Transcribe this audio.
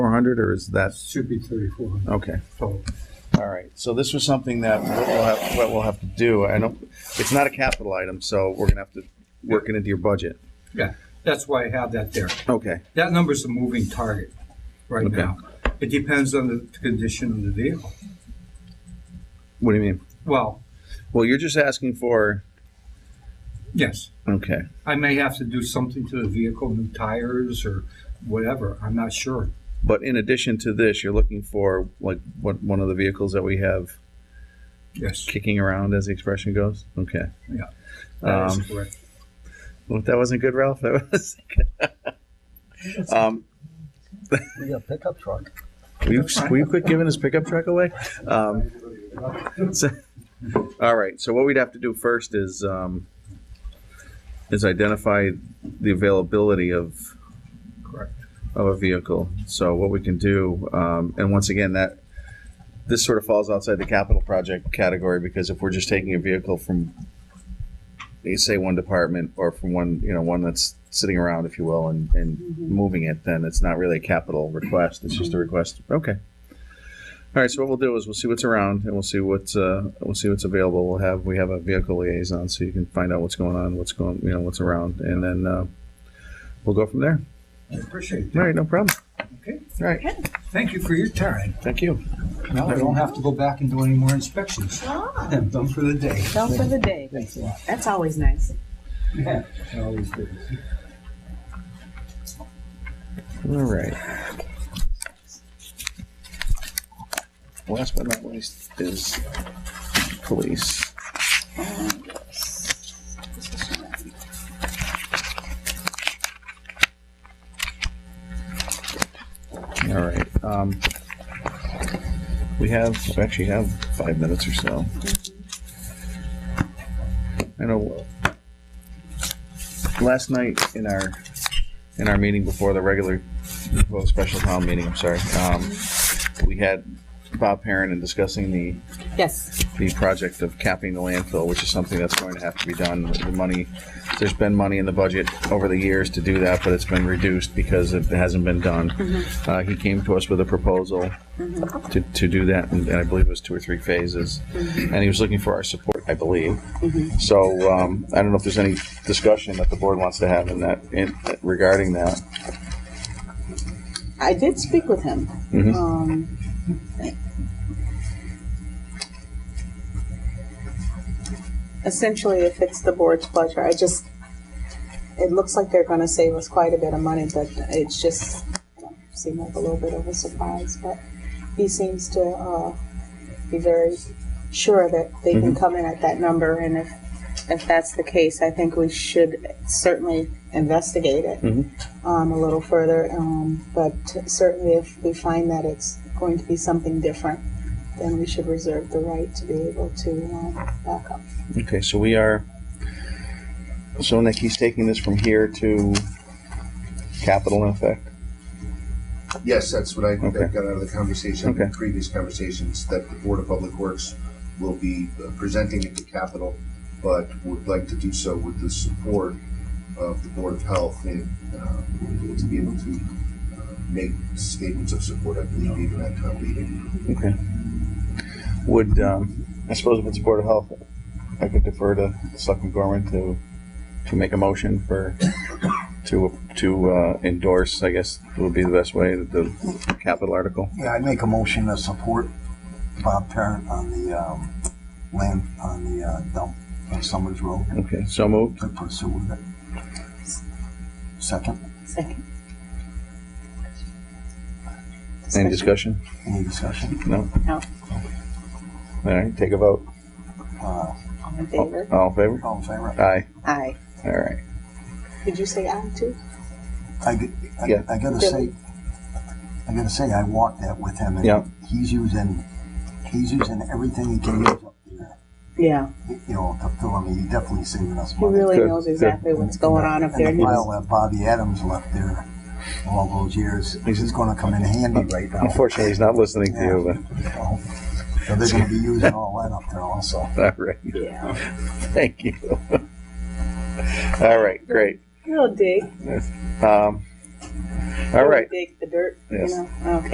hundred, or is that, Should be thirty-four hundred. okay. So All right, so this was something that what we'll have, what we'll have to do, I don't, it's not a capital item, so we're gonna have to work it into your budget. that's why I have that there. Okay, That number's a moving target right Okay. now. It depends on the condition of the vehicle. what do you mean? Well, Well, you're just asking for, yes, okay, I may have to do something to the vehicle, new tires or whatever. I'm not sure. but in addition to this, you're looking for, like, what, one of the vehicles that we have Yes, kicking around, as the expression goes? Okay. that is Um, correct. Well, if that wasn't good, Ralph, that was. Um, We got a pickup truck. Will you, will you quit giving his pickup truck away? Um, so- all right, so what we'd have to do first is, um, is identify the availability of, Correct. of a vehicle. So what we can do, um, and once again, that, this sort of falls outside the capital project category because if we're just taking a vehicle from, you say one department or from one, you know, one that's sitting around, if you will, and, and moving it, then it's not really a capital request. It's just a request. Okay. All right. So what we'll do is we'll see what's around and we'll see what's, uh, we'll see what's available. We'll have, we have a vehicle liaison so you can find out what's going on, what's going, you know, what's around. And then, uh, we'll go from there. I appreciate it. All right, no problem. Okay. All right, Thank you for your time. thank you. Now I don't have to go back and do any more inspections. Ah, I'm done for the day. done for the day. Thanks a lot. That's always nice. I always do. All right. Last but not least is police. All right, um, we have, we actually have five minutes or so. I know, last night in our, in our meeting before the regular well, special town meeting, I'm sorry. Um, we had Bob Perrin and discussing the, Yes. the project of capping the landfill, which is something that's going to have to be done. The money, there's been money in the budget over the years to do that, but it's been reduced because it hasn't been done. Uh, he came to us with a proposal to, to do that, and I believe it was two or three phases. And he was looking for our support, I believe. So, um, I don't know if there's any discussion that the board wants to have in that, in, regarding that. I did speak with him. Mhm. Um, essentially, if it's the board's pleasure, I just, it looks like they're going to save us quite a bit of money, but it's just, you know, seemed like a little bit of a surprise. But he seems to uh, be very sure that they can come in at that number. And if, if that's the case, I think we should certainly investigate it Mhm. um, a little further. Um, but certainly, if we find that it's going to be something different, then we should reserve the right to be able to um, back up. Okay, so we are, so Nick, he's taking this from here to capital in effect? Yes, that's what I, Okay. that got out of the conversation, Okay. previous conversations, that the Board of Public Works will be uh, presenting at the Capitol, but would like to do so with the support of the Board of Health and, uh, to be able to, uh, make statements of support, I believe, even at town meeting. Okay. Would, um, I suppose if it's Board of Health, I could defer to Selectman Gorman to, to make a motion for, to, to uh, endorse, I guess, would be the best way, the capital article. Yeah, I make a motion to support Bob Parent on the, um, land, on the, uh, dump on Summers Road Okay, so moved. to pursue with it. Second, Second. Any discussion? any discussion? No? No. All right, take a vote. Uh, All in favor? All in favor? all in favor? Aye. Oh. Aye. All right. Did you say aye too? I, g- I- Yeah. I gotta say, I gotta say, I walked that with him. and Yeah. He's using, he's using everything he can use up there, Yeah. you know, to fill, I mean, he's definitely saving us He money. really Good, knows good. exactly what's going on up there. And the pile that Bobby Adams left there all those years, this is gonna come in handy right now. Unfortunately, he's not listening to you, but. So so they're gonna be using all that up there also. All right. Yeah. Thank you. All right. Great. He'll dig. Um, all He'll right. Dig the dirt. Yes. You know? Okay.